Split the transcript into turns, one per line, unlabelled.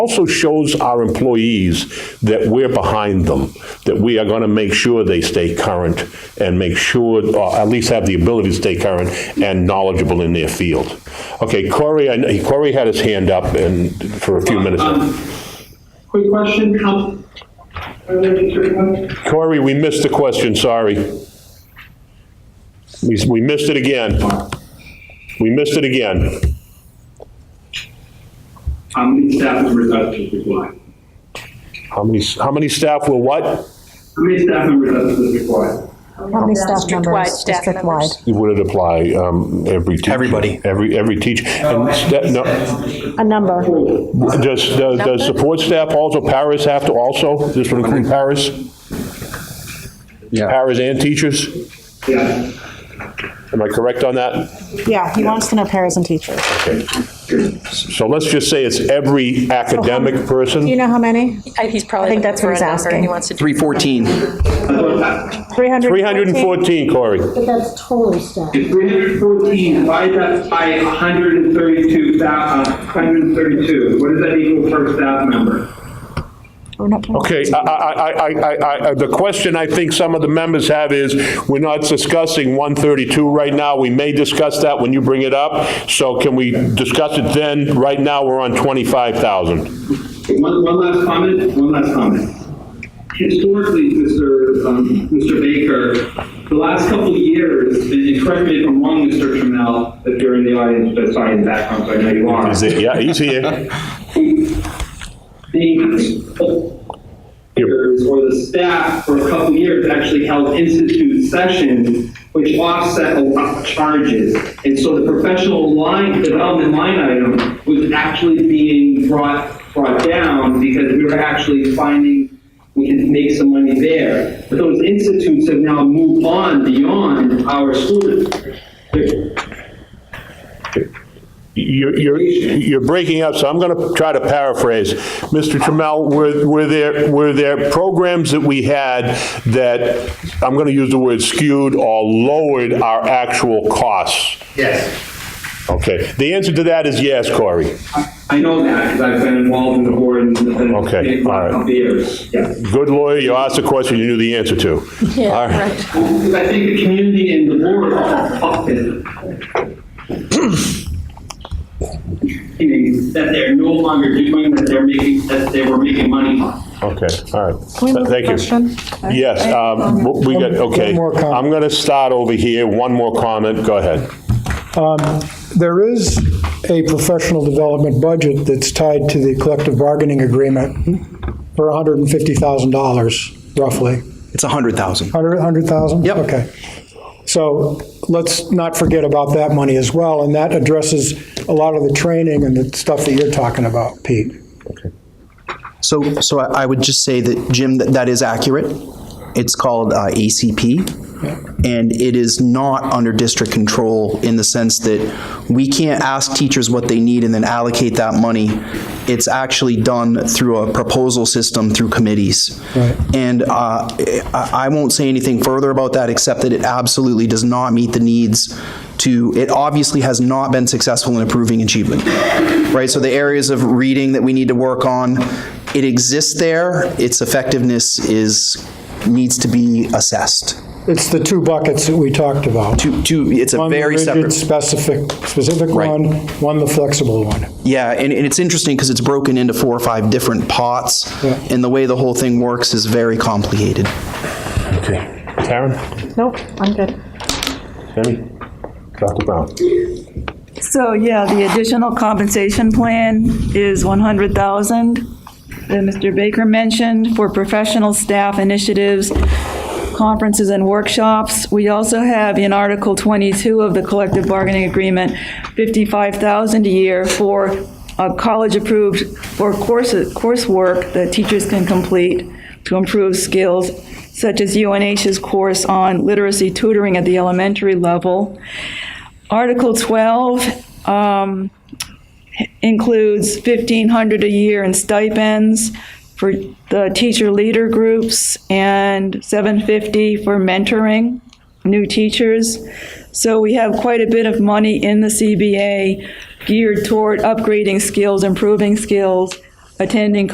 also shows our employees that we're behind them, that we are going to make sure they stay current and make sure, or at least have the ability to stay current and knowledgeable in their field. Okay, Corey, I kn- Corey had his hand up and for a few minutes.
Um, Quick question, um, related to one.
Corey, we missed the question, sorry. We we missed it again. We missed it again.
how many staff members are to required?
How many, how many staff will what?
How many staff members are to required?
How many staff
District-wide
members,
staff
district-wide?
members.
Would it apply um, every teacher?
Everybody.
Every, every teacher? And sta- no,
A number.
Does, does does support staff also, paras have to also? This would include paras?
Yeah.
Paras and teachers?
Yeah.
Am I correct on that?
Yeah, he wants to know paras and teachers.
Okay. So let's just say it's every academic person?
Do you know how many?
I- He's
I
probably.
think
looking
that's what
for a
he's
number,
asking.
He wants to.
314.
314?
314, Corey.
But that's total staff.
If 314, why is that by 132, thou- uh, 132? What does that equal per staff member?
We're not counting.
Okay, I, I, I- I, I, I, the question I think some of the members have is, we're not discussing 132 right now, we may discuss that when you bring it up, so can we discuss it then? Right now, we're on 25,000.
One, one last comment, one last comment. Historically, Mr. Um, Mr. Baker, the last couple of years, and you correct me if I'm wrong, Mr. Trammell, if you're in the audience, but sorry, in the background, so I know you are.
Is it, yeah, he's here.
the workers or the staff for a couple of years actually held institute sessions which offset a lot of charges. And so the professional line, development line item was actually being brought, brought down because we were actually finding we can make some money there. But those institutes have now moved on beyond our students.
You're, you're, you're breaking up, so I'm going to try to paraphrase. Mr. Trammell, were, were there, were there programs that we had that, I'm going to use the word skewed or lowered our actual costs?
Yes.
Okay, the answer to that is yes, Corey.
I know that because I've been involved in the board and the
Okay, all right.
for the years. Yeah.
Good lawyer, you asked a question you knew the answer to. All right.
Because I think the community and the board are often that they're no longer doing, that they're making, that they were making money on.
Okay, all right.
Can we
Thank
move the
you.
question?
Yes, um, w- we got, okay.
One more comment.
I'm going to start over here, one more comment, go ahead.
There is a professional development budget that's tied to the collective bargaining agreement for $150,000 roughly.
It's 100,000.
100, 100,000?
Yep.
Okay. So let's not forget about that money as well, and that addresses a lot of the training and the stuff that you're talking about, Pete.
So, so I I would just say that, Jim, that that is accurate. It's called uh, ACP, and it is not under district control in the sense that we can't ask teachers what they need and then allocate that money. It's actually done through a proposal system through committees. And uh, I I won't say anything further about that, except that it absolutely does not meet the needs to, it obviously has not been successful in improving achievement, right? So the areas of reading that we need to work on, it exists there, its effectiveness is, needs to be assessed.
It's the two buckets that we talked about.
To, to, it's a
One, the
very
rigid,
separate,
specific, specific
Right.
one, one, the flexible one.
yeah, and, and it's interesting because it's broken into four or five different pots,
Yeah.
and the way the whole thing works is very complicated.
Okay. Karen,
Nope, I'm good.
Tammy, Dr. Brown.
So, yeah, the additional compensation plan is 100,000 that Mr. Baker mentioned for professional staff initiatives, conferences and workshops. We also have in Article 22 of the collective bargaining agreement, 55,000 a year for uh, college-approved, for courses, coursework that teachers can complete to improve skills, such as UNH's course on literacy tutoring at the elementary level. Article 12 um, includes 1,500 a year in stipends for the teacher leader groups and 750 for mentoring new teachers. So we have quite a bit of money in the CBA geared toward upgrading skills, improving skills, attending